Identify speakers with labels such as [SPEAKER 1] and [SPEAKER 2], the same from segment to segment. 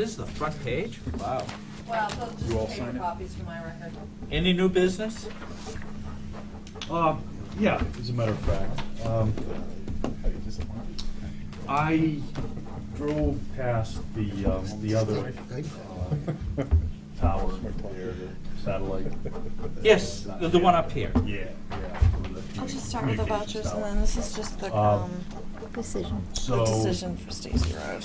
[SPEAKER 1] This is the front page? Wow.
[SPEAKER 2] Well, they'll
[SPEAKER 3] You all
[SPEAKER 2] just
[SPEAKER 3] sign
[SPEAKER 2] paper
[SPEAKER 3] it?
[SPEAKER 2] copies for my record.
[SPEAKER 1] Any new business?
[SPEAKER 3] Um, yeah, as a matter of fact, um, I drove past the, um, the other, uh, tower, there, the satellite.
[SPEAKER 1] Yes, the- the one up here.
[SPEAKER 3] Yeah, yeah.
[SPEAKER 4] I'll just start with the vouchers and then this is just the,
[SPEAKER 3] Um,
[SPEAKER 4] um,
[SPEAKER 5] Decision.
[SPEAKER 4] the
[SPEAKER 3] So,
[SPEAKER 4] decision for Stacy Road.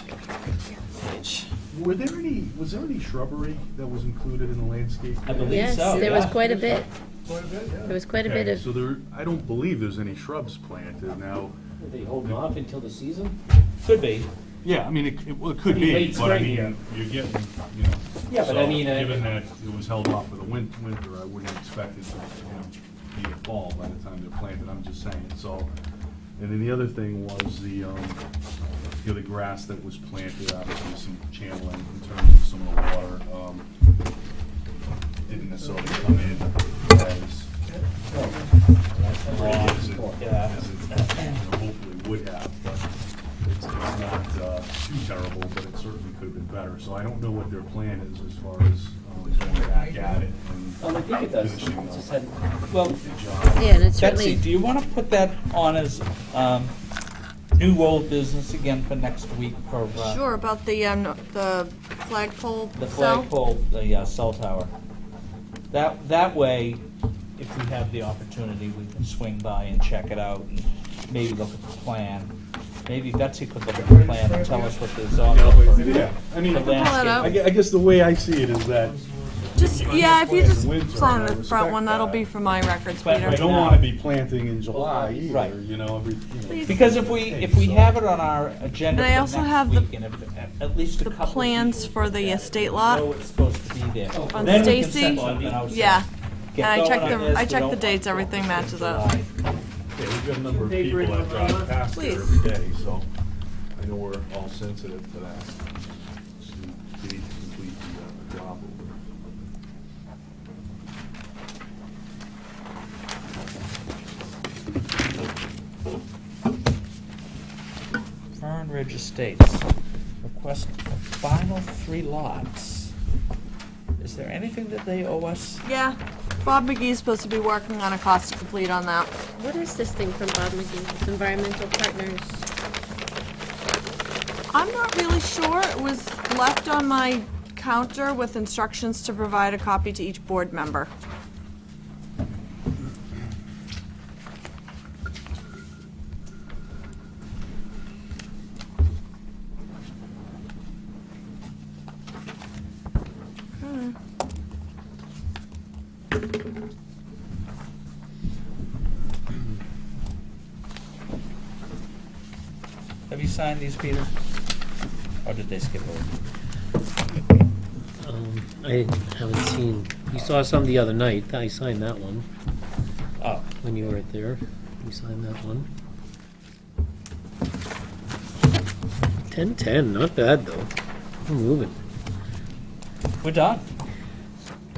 [SPEAKER 4] Page.
[SPEAKER 3] were there any, was there any shrubbery that was included in the landscape?
[SPEAKER 1] I believe
[SPEAKER 5] Yes,
[SPEAKER 1] so,
[SPEAKER 5] there was
[SPEAKER 1] yeah.
[SPEAKER 5] quite a bit. There was quite a bit
[SPEAKER 3] Okay, so
[SPEAKER 5] of,
[SPEAKER 3] there, I don't believe there's any shrubs planted now.
[SPEAKER 6] Are they holding off until the season?
[SPEAKER 1] Could be.
[SPEAKER 3] Yeah, I mean, it, it well, it could
[SPEAKER 6] Pretty
[SPEAKER 3] be,
[SPEAKER 6] late
[SPEAKER 3] but I mean,
[SPEAKER 6] spring here.
[SPEAKER 3] you're getting, you know.
[SPEAKER 6] Yeah, but I
[SPEAKER 3] so,
[SPEAKER 6] mean, uh,
[SPEAKER 3] Given that it was held off for the win- winter, I wouldn't expect it to, you know, be a fall by the time they're planted, I'm just saying, so. And then the other thing was the, um, you know, the grass that was planted, obviously some channeling in terms of some of the water, um, didn't necessarily come in as raw as it,
[SPEAKER 1] Yeah.
[SPEAKER 3] as it you know, hopefully would have, but it's, it's not, uh, too terrible, but it certainly could have been better. So I don't know what their plan is as far as, um, going back at it
[SPEAKER 6] Um, I think it
[SPEAKER 3] and
[SPEAKER 6] does.
[SPEAKER 3] finishing
[SPEAKER 6] It just
[SPEAKER 3] up
[SPEAKER 6] had-
[SPEAKER 1] Well,
[SPEAKER 3] the job.
[SPEAKER 5] yeah, and
[SPEAKER 1] Betsy,
[SPEAKER 5] it certainly,
[SPEAKER 1] do you want to put that on as um, new old business again for next week for uh,
[SPEAKER 4] Sure, about the, um, the flagpole
[SPEAKER 1] the
[SPEAKER 4] cell?
[SPEAKER 1] flagpole, the uh, cell tower? That, that way, if we have the opportunity, we can swing by and check it out and maybe look at the plan. Maybe Betsy could look at the plan and tell us what there's on
[SPEAKER 3] Yeah,
[SPEAKER 1] it.
[SPEAKER 3] but, yeah, I mean,
[SPEAKER 1] The landscape.
[SPEAKER 3] I gue- I guess the way I see it is that
[SPEAKER 4] Just, yeah, if you
[SPEAKER 3] It's
[SPEAKER 4] just
[SPEAKER 3] winter,
[SPEAKER 4] sign
[SPEAKER 3] and I
[SPEAKER 4] the front one,
[SPEAKER 3] respect
[SPEAKER 4] that'll
[SPEAKER 3] that.
[SPEAKER 4] be for my records,
[SPEAKER 1] But
[SPEAKER 4] Peter.
[SPEAKER 3] I don't
[SPEAKER 1] now.
[SPEAKER 3] wanna be planting in July
[SPEAKER 1] Right.
[SPEAKER 3] either, you know, every, you know.
[SPEAKER 1] Because if we, if we have it on our agenda
[SPEAKER 4] And I
[SPEAKER 1] for
[SPEAKER 4] also
[SPEAKER 1] next
[SPEAKER 4] have the-
[SPEAKER 1] week, and if- at- at least a
[SPEAKER 4] The
[SPEAKER 1] couple of
[SPEAKER 4] plans
[SPEAKER 1] people
[SPEAKER 4] for the
[SPEAKER 1] look at it,
[SPEAKER 4] estate
[SPEAKER 1] we
[SPEAKER 4] lot
[SPEAKER 1] know it's supposed to be there.
[SPEAKER 4] on
[SPEAKER 1] Oh, Then we can
[SPEAKER 4] Stacy.
[SPEAKER 1] send something out, so
[SPEAKER 4] Yeah,
[SPEAKER 1] get
[SPEAKER 4] and I
[SPEAKER 1] going
[SPEAKER 4] checked
[SPEAKER 1] on
[SPEAKER 4] the-
[SPEAKER 1] this,
[SPEAKER 4] I
[SPEAKER 1] we
[SPEAKER 4] checked the
[SPEAKER 1] don't-
[SPEAKER 4] dates, everything
[SPEAKER 1] it's
[SPEAKER 4] matches
[SPEAKER 1] July.
[SPEAKER 4] up.
[SPEAKER 3] Yeah, we've got a number of people that drive past there
[SPEAKER 4] Please.
[SPEAKER 3] every day, so I know we're all sensitive to that. So We need to complete the uh, job.
[SPEAKER 1] Fern Ridge Estates, request for final three lots. Is there anything that they owe us?
[SPEAKER 4] yeah. Bob McGee's supposed to be working on a cost to complete on that.
[SPEAKER 5] what is this thing from Bob McGee? It's Environmental Partners.
[SPEAKER 4] I'm not really sure. It was left on my counter with instructions to provide a copy to each board member. Hmm.
[SPEAKER 1] Have you signed these, Peter? Or did they skip over?
[SPEAKER 6] Um, I haven't seen, you saw some the other night, I signed that one
[SPEAKER 1] Oh,
[SPEAKER 6] when you were there, you signed that one. Ten ten, not bad though, we're moving.
[SPEAKER 1] we're done.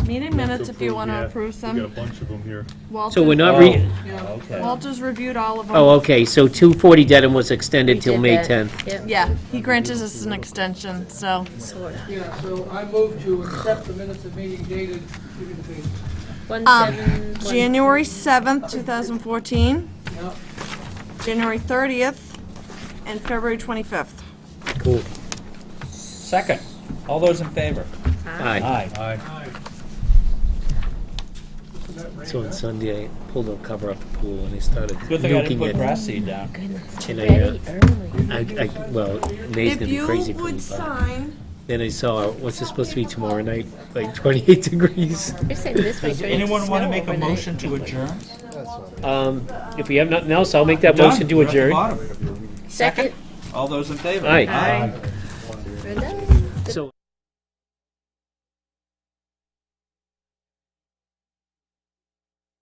[SPEAKER 4] Meeting minutes, if you want to approve
[SPEAKER 3] We got a
[SPEAKER 4] them.
[SPEAKER 3] bunch of them here.
[SPEAKER 6] So we're not re,
[SPEAKER 1] Oh, Okay.
[SPEAKER 4] Walter's reviewed all of them.
[SPEAKER 6] oh, okay, so two forty Dedham was extended till
[SPEAKER 5] did
[SPEAKER 6] May
[SPEAKER 5] that.
[SPEAKER 6] tenth.
[SPEAKER 1] Um,
[SPEAKER 5] Yep.
[SPEAKER 4] Yeah, he granted us an extension, so.
[SPEAKER 7] Yeah, so I move to accept the minutes of meeting dated, give me the page.
[SPEAKER 5] One
[SPEAKER 4] Um,
[SPEAKER 5] seven, one.
[SPEAKER 4] January 7th, 2014,
[SPEAKER 7] Yeah,
[SPEAKER 4] January 30th, and February 25th.
[SPEAKER 6] Cool,
[SPEAKER 1] Second, all those in favor?
[SPEAKER 4] Ah.
[SPEAKER 6] aye,
[SPEAKER 1] Aye.
[SPEAKER 3] Aye.
[SPEAKER 7] isn't that right?
[SPEAKER 6] so on Sunday, I pulled the cover up the pool and I started
[SPEAKER 1] Good thing I didn't
[SPEAKER 6] nuking
[SPEAKER 1] put
[SPEAKER 6] it.
[SPEAKER 1] grass seed down.
[SPEAKER 5] Goodness,
[SPEAKER 6] And I, uh,
[SPEAKER 5] very early.
[SPEAKER 6] I, I, well, May's
[SPEAKER 4] If
[SPEAKER 6] gonna be
[SPEAKER 4] you
[SPEAKER 6] crazy for
[SPEAKER 4] would
[SPEAKER 6] me, but.
[SPEAKER 4] sign,
[SPEAKER 6] Then I saw, what's this supposed to be tomorrow night? Like 28 degrees.
[SPEAKER 5] You're saying this might
[SPEAKER 1] Does
[SPEAKER 5] turn into
[SPEAKER 1] anyone want to
[SPEAKER 5] snow
[SPEAKER 1] make a
[SPEAKER 5] overnight.
[SPEAKER 1] motion to adjourn?
[SPEAKER 6] Um, if we have nothing else, I'll make that
[SPEAKER 1] Done.
[SPEAKER 6] motion to
[SPEAKER 1] We're at the
[SPEAKER 6] adjourn.
[SPEAKER 1] bottom.
[SPEAKER 5] Second?
[SPEAKER 1] All those in favor?
[SPEAKER 6] Aye.
[SPEAKER 5] Brenda?
[SPEAKER 6] So.